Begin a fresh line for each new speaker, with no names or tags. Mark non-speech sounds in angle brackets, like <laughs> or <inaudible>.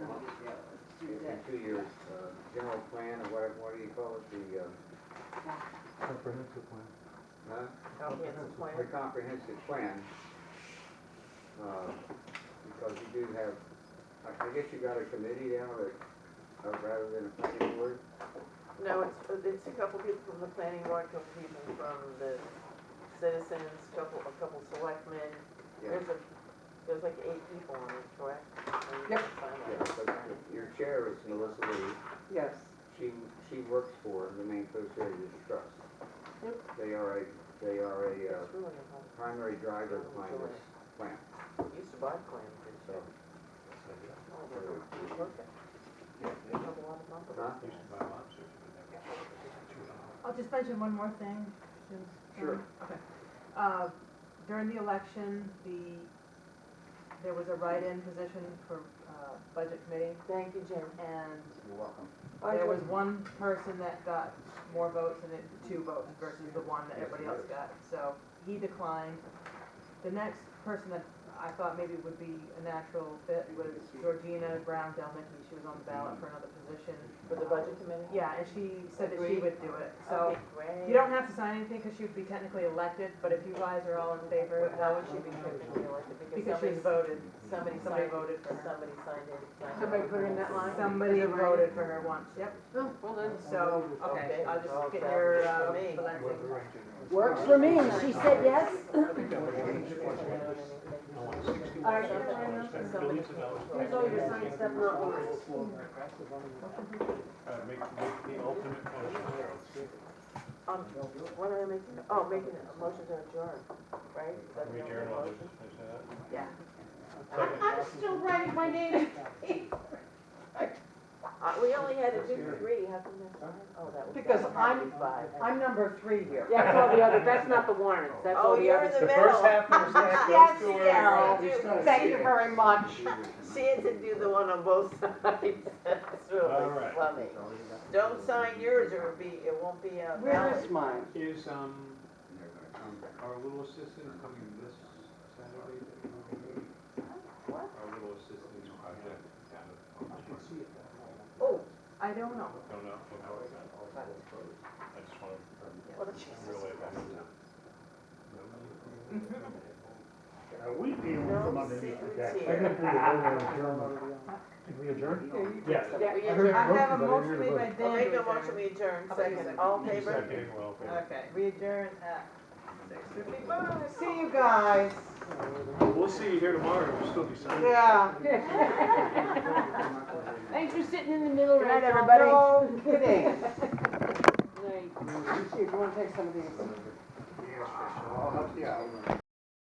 the two-year uh, general plan or what, what do you call it, the, uh,
Comprehensive plan.
huh?
Comprehensive
The
plan.
comprehensive plan, uh, because you do have, I I guess you got a committee now that, uh, rather than a planning board?
No, it's, uh, it's a couple people from the planning board, a couple people from the citizens, couple, a couple selectmen.
Yeah,
There's a, there's like eight people on it, correct? And you
Yep.
can sign
yeah,
up.
but your chair is Melissa Lee.
Yes,
She, she works for the Maine Coast Heritage Trust.
Yep.
They are a, they are a uh,
It's really a,
primary driver
Oh,
behind this plant,
I used to buy clams and
so.
shit. Oh, they're perfect. They have a lot of bump.
Huh?
I'll just mention one more thing, since.
Sure.
Okay. Uh, During the election, the, there was a write-in position for uh, budget committee,
Thank you, Jim.
and
You're welcome.
there was one person that got more votes and it, two votes versus the one that everybody else got, so he declined. The next person that I thought maybe would be a natural fit was Georgina Brown Delmicky, she was on the ballot for another position.
For the budget committee?
Yeah, and she said that she
Agreed.
would do it, so.
Okay, great.
You don't have to sign anything because she would be technically elected, but if you guys are all in favor,
But
that
How would
would
she be technically elected? somebody-
because she's voted.
Somebody
Somebody
signed,
voted for her.
somebody signed in. signed
somebody
out.
put in that line.
Somebody
Is it right?
voted for her once, yep.
Well, then,
So, okay, I'll just get your, uh,
Okay.
blessing.
Works for me, she said yes.
All right, everyone else is-
Here's all your signed stuff, not yours.
Uh, Make, make the ultimate motion.
Um, what am I making, oh, making a motion to adjourn, right? Is that the
We
only
adjourn, I'll
motion?
just finish that.
Yeah.
I'm still writing my name.
Uh, we only had to do three, how come that's five? Oh, that was.
Because
that was
I'm-
Five.
I'm number three here.
That's all the other, that's not the warrants, that's all
Oh,
the
you're in
other.
the middle.
of the
<laughs>
stack
Yes,
to
yes,
her.
Thank you very much.
She had to do the one on both <laughs> sides, that's
All
really
right.
funny. Don't sign yours, or it'll be, it won't be uh,
Where is
valid.
mine?
Is, um, our little assistant coming this Saturday?
What?
Our little assistant project down at,
Oh,
I don't know.
Don't know, don't know. I just want
what a
to
Jesus.
relay that.
<laughs>
We deal with
No
them underneath the
secrets
deck.
here.
Did we adjourn?
Here, you
Yeah.
take some.
Yeah, we
I
adjourn.
have a motion made by
I'll
Dan.
make a
to
motion, we adjourn,
I'll second.
second, all in favor?
Second, well,
Uh,
okay.
Okay, we adjourn at six fifty-five.
See you guys.
We'll see you here tomorrow, we'll still be signing.
Yeah.
Thanks for sitting in the middle
Good
right
night,
now.
everybody.
No kidding.
Good night.
Here, you wanna take some of these?
Yes, I'll help you out.